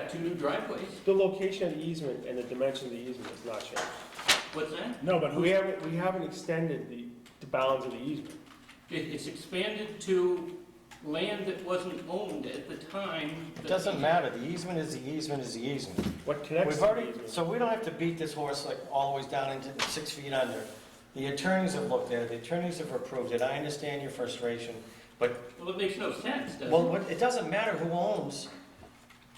got two new driveways. The location of the easement and the dimension of the easement has not changed. What's that? No, but We who, haven't, we haven't extended the, the bounds of the easement. It, it's expanded to land that wasn't owned at the time. It doesn't matter, the easement is the easement is the easement. What connects We've to the already, easement? so we don't have to beat this horse like all the way down into the six feet under. The attorneys have looked at it, the attorneys have approved it, I understand your frustration, but, Well, it makes no sense, does well, it? what- it doesn't matter who owns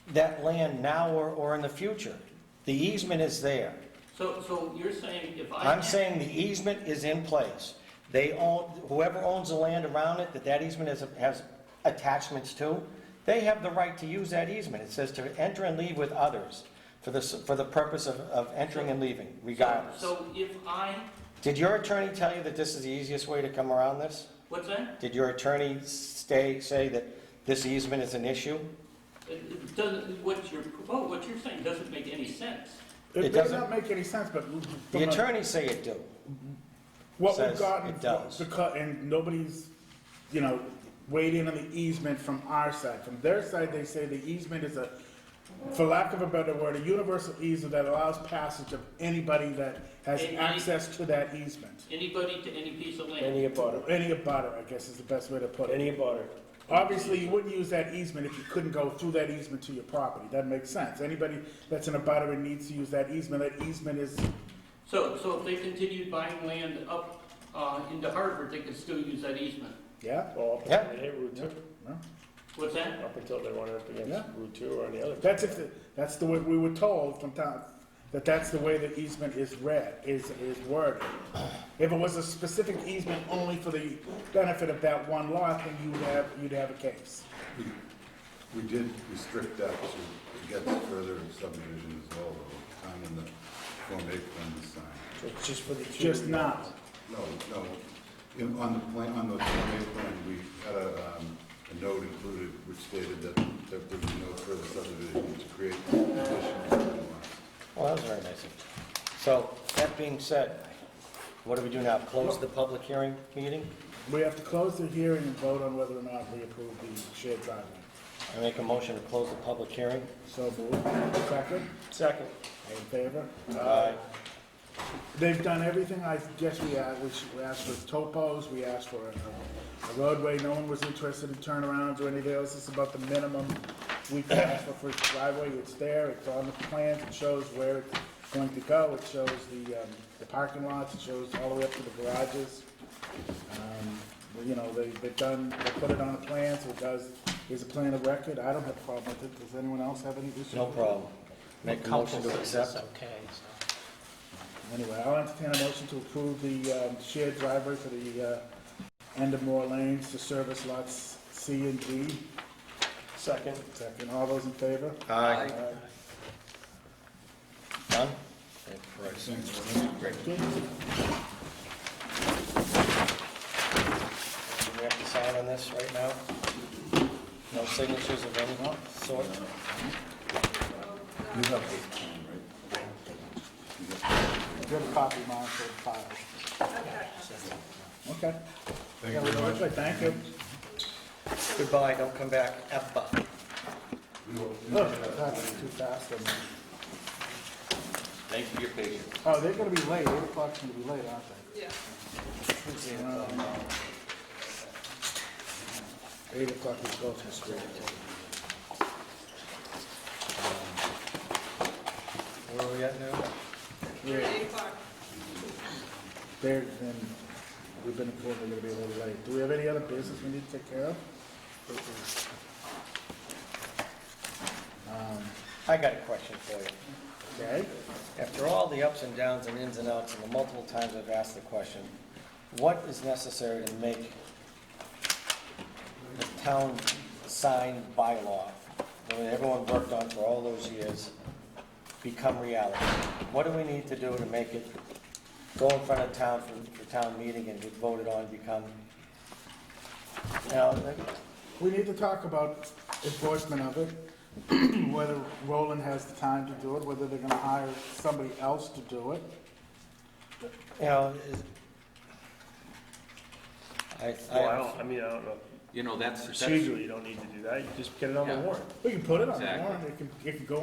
that land now or, or in the future. The easement is there. So, so you're saying if I. I'm saying the easement is in place. They own, whoever owns the land around it, that that easement has, has attachments to, they have the right to use that easement. It says to enter and leave with others for the, s- for the purpose of, of entering and leaving regardless. So if I, Did your attorney tell you that this is the easiest way to come around this? what's that? Did your attorney stay, say that this easement is an issue? It- It doesn't, what you're, oh, what you're saying doesn't make any sense. It it does doesn't- not make any sense, but. from The attorneys say it do. What we've says gotten, it does. because, and nobody's, you know, weighed in on the easement from our side. From their side, they say the easement is a, for lack of a better word, a universal easement that allows passage of anybody that has Any- access to that easement. Anybody to any piece of land. Any abutter, Any abutter, I guess, is the best way to put it. any abutter. Obviously, you wouldn't use that easement if you couldn't go through that easement to your property. That makes sense. Anybody that's an abutter and needs to use that easement, that easement is, So, so if they continued buying land up, uh, into Harvard, they could still use that easement. yeah, Well, up until they hit Route Yeah. two, no. What's that? up until they run up against Yeah. Route two or any other. That's if, the- that's the way we were told from time, that that's the way the easement is read, is, is worded. If it was a specific easement only for the benefit of that one lot, then you'd have, you'd have a case. We we did restrict that to get further subdivision as well, though, time in the Form A plan is signed. So it's just for the two. Just now. No, no, in- on the plan, on the Form A plan, we had a, um, a note included which stated that there would be no further subdivision to create additional lots. Well, that was very nice. of you. So, that being said, what do we do now? Close the public hearing meeting? We have to close the hearing and vote on whether or not we approve the shared driveway. I make a motion to close the public hearing. So moved. Second, Second. in favor? Aye. They've done everything, I guess we asked, we asked for topos, we asked for a- a roadway, no one was interested in turnarounds or anything else, it's about the minimum we can ask for for driveway, it's there, it's on the plans, it shows where it's going to go, it shows the, um, the parking lots, it shows all the way up to the garages. Um, well, You know, they, they've done, they put it on the plans, it does, is a plan of record, I don't have a problem with it, does anyone else have any issue? No with it? problem. Make a motion to accept. Anyway, I'll entertain a motion to approve the um, shared driveway for the uh, end of Moore Lanes to service lots C and D. Second. Second, all those in favor? Aye. Aye. Done? Okay. Do we have to sign on this right now? No signatures of any sort? You have this plan, right? Do you have a copy, Mom, for the file? Okay. Thank Yeah, you we'll very do much. it. Thank you. Goodbye, don't come back, F-bomb. We will- we will- Look, that was too fast. wasn't it? Thank you for your patience. Oh, they're gonna be late, eight o'clock's gonna be late, aren't they? Yeah. Eight o'clock is going to school. Where are we at now? You're at eight o'clock. They're, then, we've been informed they're gonna be a little late. Do we have any other business we need to take care of? Um, I got a question for you. Okay, After all the ups and downs and ins and outs and the multiple times I've asked the question, what is necessary to make the town sign bylaw, that everyone worked on for all those years, become reality? What do we need to do to make it go in front of town for, for town meeting and get voted on, become, you know, we need to talk about enforcement of it, whether Roland has the time to do it, whether they're gonna hire somebody else to do it. you know, is- I, Well, I I, don't, I mean, I don't know. You know, that's, that's Procedurally, you don't need to do that. You just get it on the Yeah. warrant. We can put it on the Exactly. warrant, it can, it can go